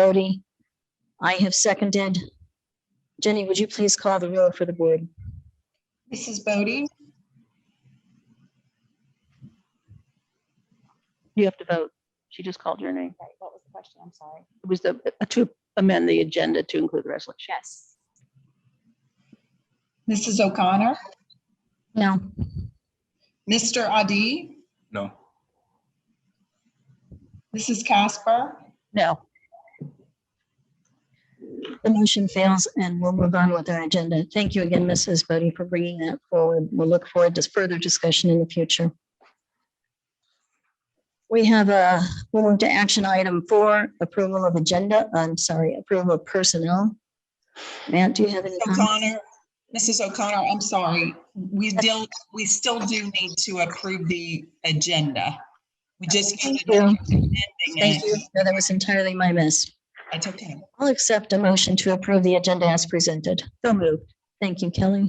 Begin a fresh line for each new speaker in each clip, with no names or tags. Bodie. I have seconded. Jenny, would you please call the roll for the board?
Mrs. Bodie,
You have to vote. She just called your name.
Sorry, what was the question? I'm sorry.
It was the, uh, to amend the agenda to include the resolution.
Yes.
Mrs. O'Connor,
No.
Mr. Adi,
No.
Mrs. Casper,
No,
The motion fails and we'll move on with our agenda. Thank you again, Mrs. Bodie, for bringing that forward. We'll look forward to further discussion in the future. We have a, we'll move to action item four, approval of agenda, I'm sorry, approval of personnel. Matt, do you have any? comments?
O'Connor, Mrs. O'Connor, I'm sorry. We still, we still do need to approve the agenda. We just.
Thank
voted on
you.
the ending and
Thank you. No, That was entirely my miss.
It's okay.
I'll accept a motion to approve the agenda as presented.
so moved.
Thank you, Kelly.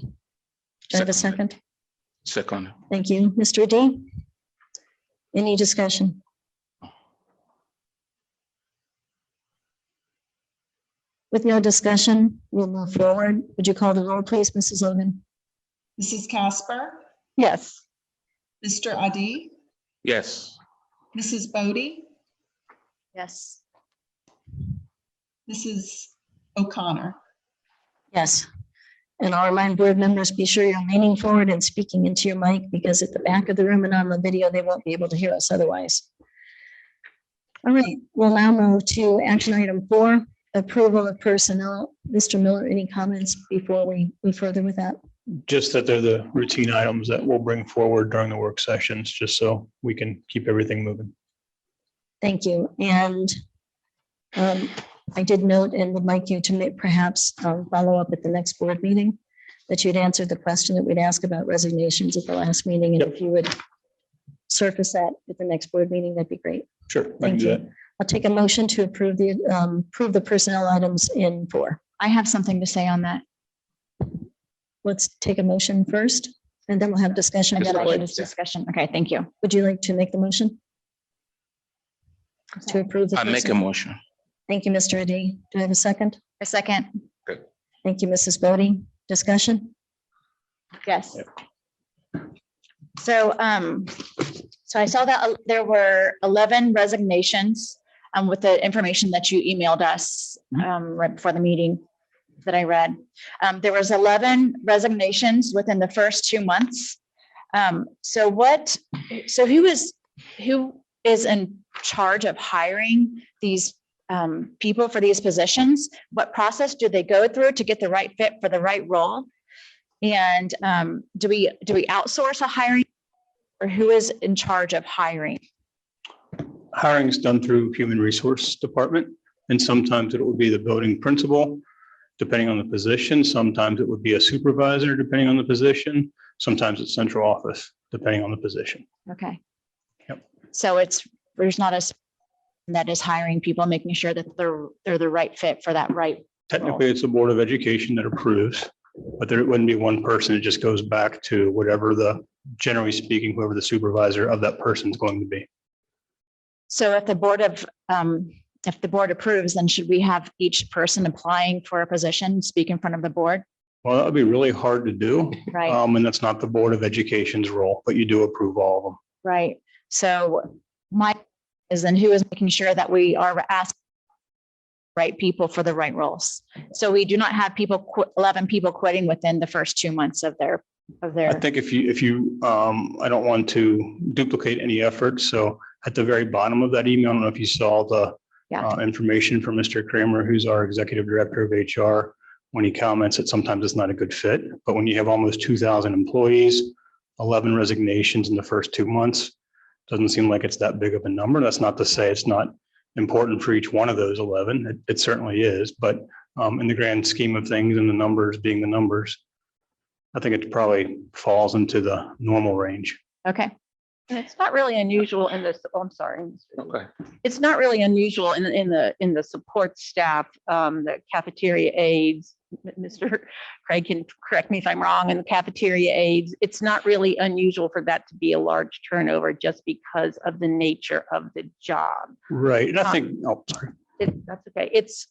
Do I have a second?
Second.
Thank you. Mr. D? Any discussion? With no discussion, we'll move forward. Would you call the roll, please, Mrs. Logan?
Mrs. Casper,
Yes.
Mr. Adi,
Yes.
Mrs. Bodie,
Yes.
Mrs. O'Connor.
Yes. And I'll remind board members, be sure you're leaning forward and speaking into your mic because at the back of the room and on the video, they won't be able to hear us otherwise. All right, we'll now move to action item four, approval of personnel. Mr. Miller, any comments before we move further with that?
Just that they're the routine items that we'll bring forward during the work sessions, just so we can keep everything moving.
Thank you. And um, I did note and would like you to ma- perhaps um, follow up at the next board meeting that you'd answered the question that we'd ask about resignations at the last meeting. And if you would surface that at the next board meeting, that'd be great.
Sure. I can
Thank
do that.
you. I'll take a motion to approve the, um, approve the personnel items in four.
I have something to say on that.
Let's take a motion first and then we'll have discussion.
And
Would
then
you
I
like-
think it's discussion. Okay, thank you.
would you like to make the motion to approve? the
I make a
personnel?
motion.
Thank you, Mr. Adi. Do I have a second?
A second.
Thank you, Mrs. Bodie. Discussion?
Yes. So, um, so I saw that uh, there were eleven resignations, um, with the information that you emailed us, um, right before the meeting that I read. Um, there was eleven resignations within the first two months. Um, so what, so who is, who is in charge of hiring these, um, people for these positions? What process do they go through to get the right fit for the right role? And um, do we, do we outsource a hiring? Or who is in charge of hiring?
Hiring is done through Human Resource Department, and sometimes it would be the building principal, depending on the position. Sometimes it would be a supervisor, depending on the position. Sometimes it's central office, depending on the position.
Okay.
Yep.
So it's, there's not a s- that is hiring people, making sure that they're, they're the right fit for that right.
Technically, it's the Board of Education that approves, but there wouldn't be one person. It just goes back to whatever the, generally speaking, whoever the supervisor of that person is going to be.
So if the board of, um, if the board approves, then should we have each person applying for a position speak in front of the board?
Well, that would be really hard to do.
Right,
Um, and that's not the Board of Education's role, but you do approve all of them.
right. So my is then who is making sure that we are asking right people for the right roles. So we do not have people, qu- 11 people quitting within the first two months of their, of
I
their,
think if you, if you, um, I don't want to duplicate any effort. So at the very bottom of that email, I don't know if you saw the
Yeah.
uh, information from Mr. Kramer, who's our executive director of HR, when he comments that sometimes it's not a good fit, but when you have almost two thousand employees, eleven resignations in the first two months, doesn't seem like it's that big of a number. That's not to say it's not important for each one of those eleven. It, it certainly is, but um, in the grand scheme of things and the numbers being the numbers, I think it probably falls into the normal range.
okay,
And it's not really unusual in this, oh, I'm sorry. Mr. Lee.
Okay.
It's not really unusual in, in the, in the support staff, um, the cafeteria aides. M- Mr. Craig can correct me if I'm wrong, and the cafeteria aides, it's not really unusual for that to be a large turnover just because of the nature of the job.
Right. And I
Uh,
think, oh, sorry.
it, that's okay. It's